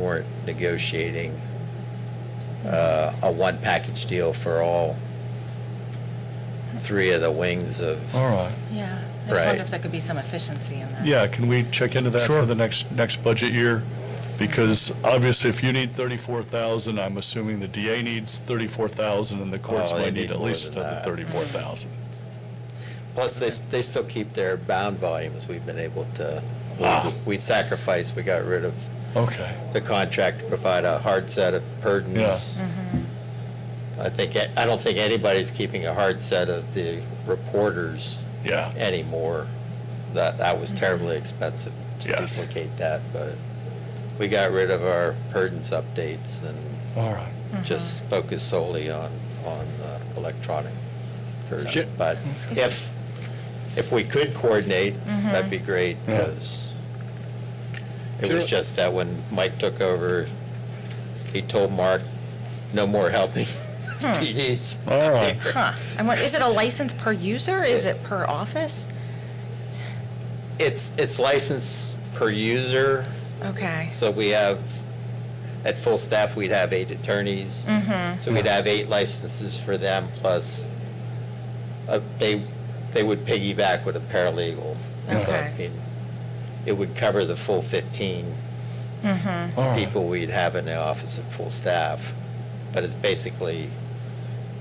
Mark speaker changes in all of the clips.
Speaker 1: weren't negotiating uh, a one-package deal for all three of the wings of,
Speaker 2: All right.
Speaker 3: Yeah, I just
Speaker 1: Right.
Speaker 3: wonder if there could be some efficiency in that.
Speaker 2: Yeah, can we check into that for
Speaker 4: Sure.
Speaker 2: the next, next budget year? Because obviously, if you need 34,000, I'm assuming the DA needs 34,000, and the courts
Speaker 1: Oh, they
Speaker 2: might
Speaker 1: need
Speaker 2: need at
Speaker 1: more
Speaker 2: least
Speaker 1: than
Speaker 2: another
Speaker 1: that.
Speaker 2: 34,000.
Speaker 1: plus they, they still keep their bound volumes. We've been able to, uh, we sacrificed, we got rid of
Speaker 2: Okay,
Speaker 1: the contract to provide a hard set of pardons. I think, I don't think anybody's keeping a hard set of the reporters
Speaker 2: yeah,
Speaker 1: anymore. That, that was terribly expensive to
Speaker 2: Yes.
Speaker 1: duplicate that, but we got rid of our pardons updates and
Speaker 2: all right.
Speaker 1: just focused solely on, on the electronic
Speaker 2: Shit.
Speaker 1: version. But if, if we could coordinate, that'd be great,
Speaker 2: Yeah.
Speaker 1: because it was just that when Mike took over, he told Mark, no more helping PDs.
Speaker 2: All right.
Speaker 3: Huh. I wonder, is it a license per user? Is it per office?
Speaker 1: It's, it's licensed per user,
Speaker 3: Okay.
Speaker 1: so we have, at full staff, we'd have eight attorneys. So we'd have eight licenses for them, plus uh, they, they would piggyback with a paralegal. So
Speaker 3: Okay.
Speaker 1: it- It would cover the full 15
Speaker 2: All right.
Speaker 1: Hmm. people we'd have in the office at full staff, but it's basically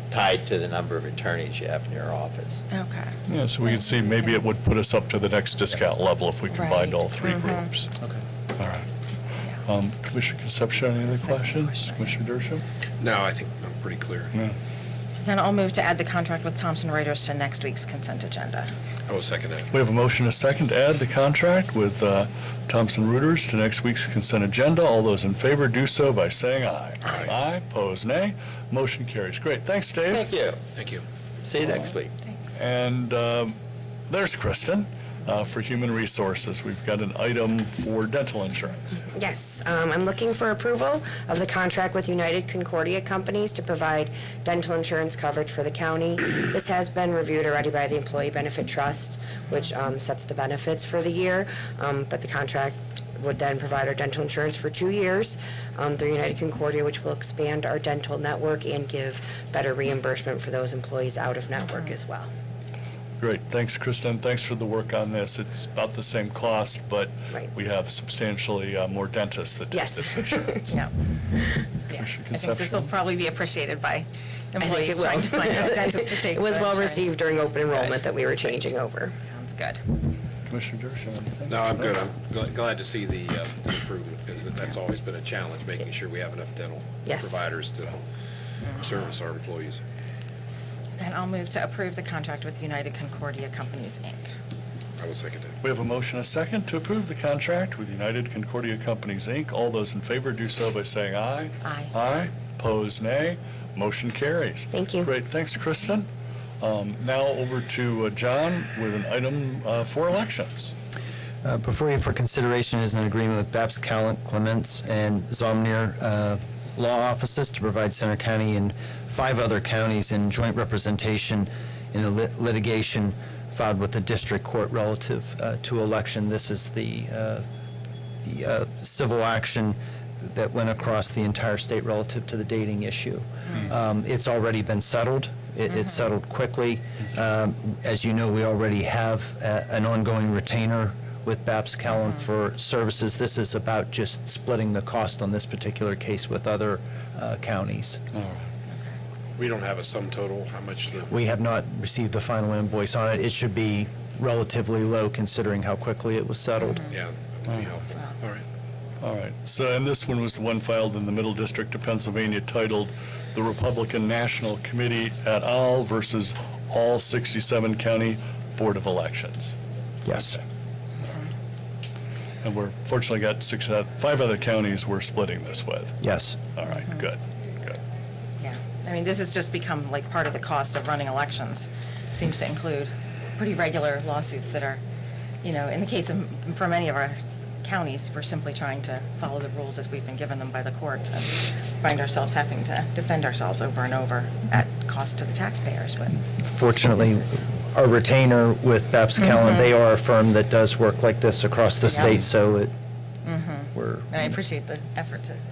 Speaker 1: tied to the number of attorneys you have in your office.
Speaker 3: Okay.
Speaker 2: Yeah, so we can see, maybe it would put us up to the next discount level if we combined
Speaker 3: Right.
Speaker 2: all three
Speaker 1: Mm-hmm.
Speaker 2: groups.
Speaker 4: Okay.
Speaker 2: All right.
Speaker 3: Yeah.
Speaker 2: Um, Commissioner Concepcion, any other
Speaker 3: Second
Speaker 2: questions?
Speaker 3: question.
Speaker 2: Commissioner Dershowitz?
Speaker 4: No, I think I'm pretty clear.
Speaker 2: No.
Speaker 3: Then I'll move to add the contract with Thomson Reuters to next week's consent agenda.
Speaker 4: I will second that.
Speaker 2: We have a motion and a second to add the contract with uh, Thomson Reuters to next week's consent agenda. All those in favor do so by saying aye.
Speaker 4: Aye.
Speaker 2: Aye, pose nay. Motion carries. Great, thanks, Dave.
Speaker 1: Thank you.
Speaker 4: Thank you.
Speaker 1: See you next week.
Speaker 3: Thanks.
Speaker 2: And um, there's Kristen uh, for Human Resources. We've got an item for dental insurance.
Speaker 5: Yes, um, I'm looking for approval of the contract with United Concordia Companies to provide dental insurance coverage for the county. This has been reviewed already by the Employee Benefit Trust, which um, sets the benefits for the year, Um, but the contract would then provide our dental insurance for two years um, through United Concordia, which will expand our dental network and give better reimbursement for those employees out of network as well.
Speaker 2: Great, thanks, Kristen. Thanks for the work on this. It's about the same cost, but
Speaker 5: Right.
Speaker 2: we have substantially uh, more dentists that take
Speaker 5: Yes.
Speaker 2: this insurance.
Speaker 3: Yeah. Yeah. I
Speaker 2: Commissioner
Speaker 3: think this will
Speaker 2: Concepcion.
Speaker 3: probably be appreciated by
Speaker 5: I think
Speaker 3: employees
Speaker 5: will.
Speaker 3: trying to find a dentist to take.
Speaker 5: It was
Speaker 3: their
Speaker 5: well
Speaker 3: insurance.
Speaker 5: received during open enrollment that we were changing over.
Speaker 3: Sounds good.
Speaker 2: Commissioner Dershowitz, anything?
Speaker 4: No, I'm good. I'm gl- glad to see the uh, the improvement because that's always been a challenge, making sure we have enough dental
Speaker 5: Yes.
Speaker 4: providers to service our employees.
Speaker 3: Then I'll move to approve the contract with United Concordia Companies, Inc.
Speaker 4: I will second that.
Speaker 2: We have a motion, and a second, to approve the contract with United Concordia Companies, Inc. All those in favor do so by saying aye.
Speaker 3: Aye.
Speaker 2: Aye. Pose nay. Motion carries.
Speaker 5: Thank you.
Speaker 2: Great, thanks, Kristen. Um, Now over to uh, John with an item uh, for elections.
Speaker 6: Uh, Before you for consideration is an agreement with Babs Callen, Clements and Zomner uh, Law Offices to provide Center County and five other counties in joint representation in a lit- litigation filed with the district court relative uh, to election. This is the uh, the uh, civil action that went across the entire state relative to the dating issue. Um, It's already been settled. It- It's settled quickly. Um, As you know, we already have uh, an ongoing retainer with Babs Callen for services. This is about just splitting the cost on this particular case with other uh, counties.
Speaker 4: We don't have a sum total, how much the,
Speaker 6: We have not received the final invoice on it. It should be relatively low considering how quickly it was settled.
Speaker 4: yeah, that would be helpful. All right.
Speaker 2: All right, so, and this one was the one filed in the Middle District of Pennsylvania titled "The Republican National Committee at All versus All 67 County Board of Elections." Mm-hmm.
Speaker 6: Yes.
Speaker 2: And we're fortunately got six, uh, five other counties we're splitting this with.
Speaker 6: Yes.
Speaker 2: All right, good, good.
Speaker 3: Yeah. I mean, this has just become like part of the cost of running elections. Seems to include pretty regular lawsuits that are, you know, in the case of, for many of our counties, we're simply trying to follow the rules as we've been given them by the courts and find ourselves having to defend ourselves over and over at cost to the taxpayers, but.
Speaker 6: fortunately,
Speaker 3: This is-
Speaker 6: our retainer with Babs Callen, they are a firm that does work like this across the
Speaker 3: Yeah.
Speaker 6: state, so it, we're,
Speaker 3: And I appreciate the effort to